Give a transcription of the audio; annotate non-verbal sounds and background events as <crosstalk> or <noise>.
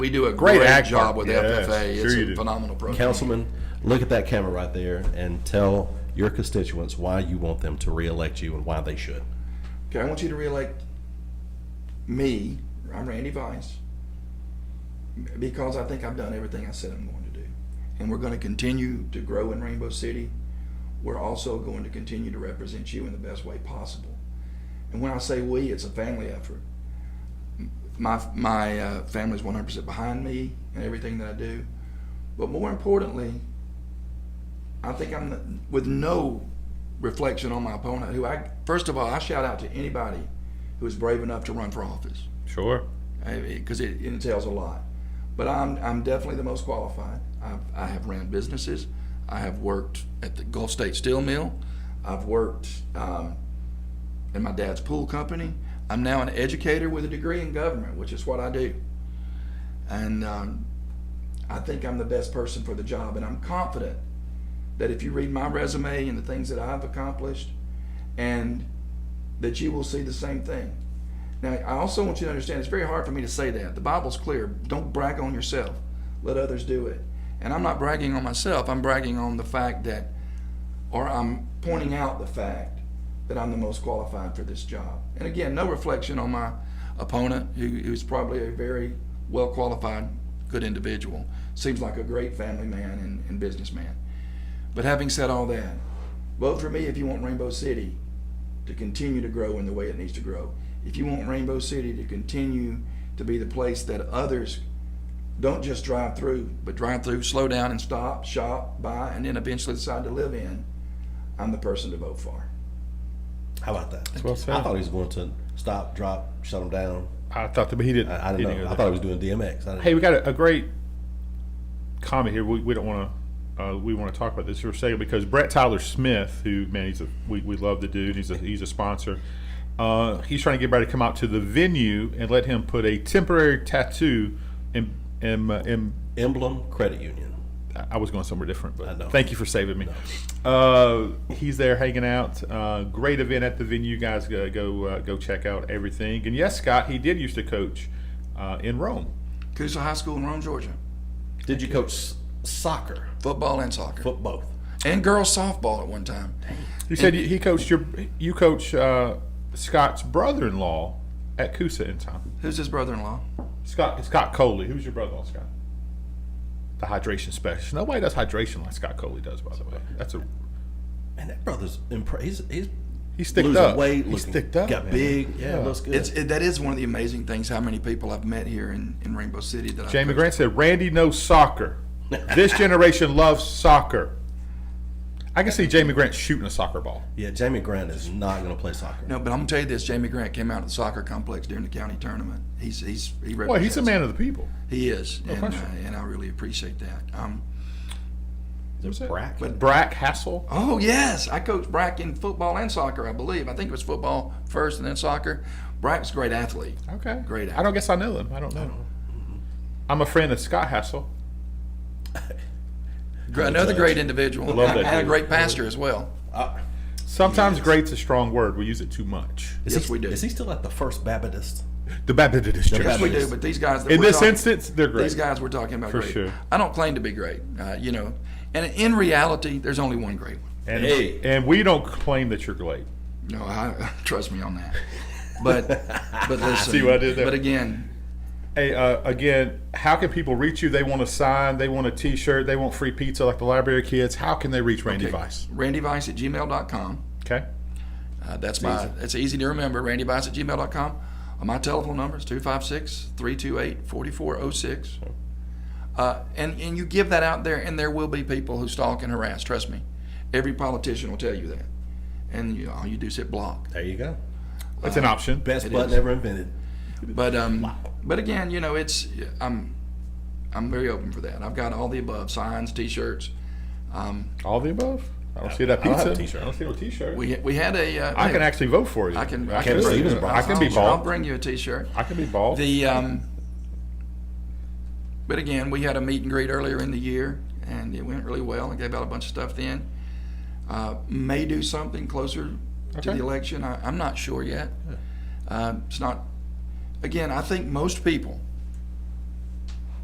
We do a Great great, ag job park. with Yes, FFA. sure it's you a do. phenomenal program. Councilman, look at that camera right there and tell your constituents why you want them to reelect you and why they should. Okay, I want you to reelect me. I'm Randy Vice because I think I've done everything I said I'm going to do, and we're going to continue to grow in Rainbow City. We're also going to continue to represent you in the best way possible. And when I say we, it's a family effort. M- My my uh, family's 100% behind me in everything that I do, but more importantly, I think I'm the- with no reflection on my opponent, who I first of all I shout out to anybody who is brave enough to run for office Sure. because it, entails a lot. But I'm I'm definitely the most qualified. I've, I have ran businesses. I have worked at the Gulf State Steel Mill. I've worked um, in my dad's pool company. I'm now an educator with a degree in government, which is what I do. And um, I think I'm the best person for the job. And I'm confident that if you read my resume and the things that I've accomplished, and that you will see the same thing. Now, I also want you to understand it's very hard for me to say that. The Bible's clear. Don't brag on yourself, let others do it. And I'm not bragging on myself, I'm bragging on the fact that, or I'm pointing out the fact that I'm the most qualified for this job. And again, no reflection on my opponent, who, who's probably a very well qualified, good individual. Seems like a great family man and, and businessman. But having said all that, vote for me if you want Rainbow City to continue to grow in the way it needs to grow. If you want Rainbow City to continue to be the place that others don't just drive through, but drive through, slow down and stop, shop, buy, and then eventually decide to live in, I'm the person to vote for. How about that? well said. I thought he was going to stop, drop, shut them down. I thought that, but he didn't. I, I he don't didn't know. go I there. thought he was doing DMX. I didn't- Hey, we got a, a great comment here. We, we don't want to. Uh, we want to talk about this for a second because Brett Tyler Smith, who man, he's a we, we love the dude. He's a he's a sponsor. Uh, he's trying to get everybody to come out to the venue and let him put a temporary tattoo. And in, uh, in, Emblem Credit Union. I was going somewhere different, I know. but thank you for saving me. Uh, he's there hanging out. Uh, great event at the venue, guys. Go go, uh, go check out everything. And yes, Scott, he did used to coach uh, in Rome. Coosa High School in Rome, Georgia. Did you coach s- soccer? Football and soccer. Foot both. and girls softball at one time. You said you- he coached your you coach uh, Scott's brother-in-law at Coosa in time. Who's his brother in law? Scott Scott Coley, who's your brother-in-law, Scott? The hydration specialist. Nobody does hydration like Scott Coley does, by the way. That's a Man, that brother's impre- he's, he's he sticked losing up. weight. he looking- sticked up. Got man. big. Yeah, Yeah. looks good. It's, it, that is one of the amazing things how many people I've met here in, in Rainbow City that I've Jamie coached. Grant said, "Randy knows soccer. This generation loves soccer." I can see Jamie Grant shooting a soccer ball. yeah, Jamie Grant is not going to play soccer. No, but I'm gonna tell you this: Jamie Grant came out of the soccer complex during the county tournament. He's he's he Well, he's a represents- man of the people. He is, and, uh, question. and I really appreciate that. Um, There's Brack. But Brack Hassel. oh yes, I coached Brack in football and soccer, I believe. I think it was football first and then soccer. Brack's a great athlete. Okay. Great I don't guess I know him. I don't know. him. I'm a friend of Scott Hassel. Gr- Another great individual, Love that and a dude. great pastor as well. Uh, Sometimes great's a strong word. We use it too much. Is Yes, he, we do. Is he still at the First Baptist? The Baptist Church. Yes, we do. But these guys that In we're this talking- instance, they're great. these guys we're talking about, For great. sure. I don't claim to be great, uh, you know, and in reality, there's only one great one. and, Hey. and we don't claim that you're great. No, I, <laughs> trust me on that. But but listen, See what <laughs> I did there? but again, Hey, uh, again, how can people reach you? They want a sign, they want a t shirt, they want free pizza like the library kids. How can they reach Randy Vice? randyvice at gmail.com. Okay. Uh, that's my, that's easy to remember, randyvice at gmail.com. Uh, my telephone number is 256 328 4406. Uh, And and you give that out there, and there will be people who stalk and harass. Trust me. Every politician will tell you that. And you, all you do is hit block. There you go. That's Uh, an option. Best It button is. ever invented. But um, but again, you know, it's I'm I'm very open for that. I've got all the above signs, t-shirts. Um, All the above. I don't see that I don't have pizza. a t-shirt. I don't see no t shirt. we we had a uh, I can actually vote for you. I can- I I can can, vote. be- I can be I'll- I'll bald. bring you a t-shirt. I can be bald. The um, but again, we had a meet and greet earlier in the year, and it went really well. I gave out a bunch of stuff then. Uh, may do something closer to Okay. the election. I, I'm not sure yet. Uh, it's not. Again, I think most people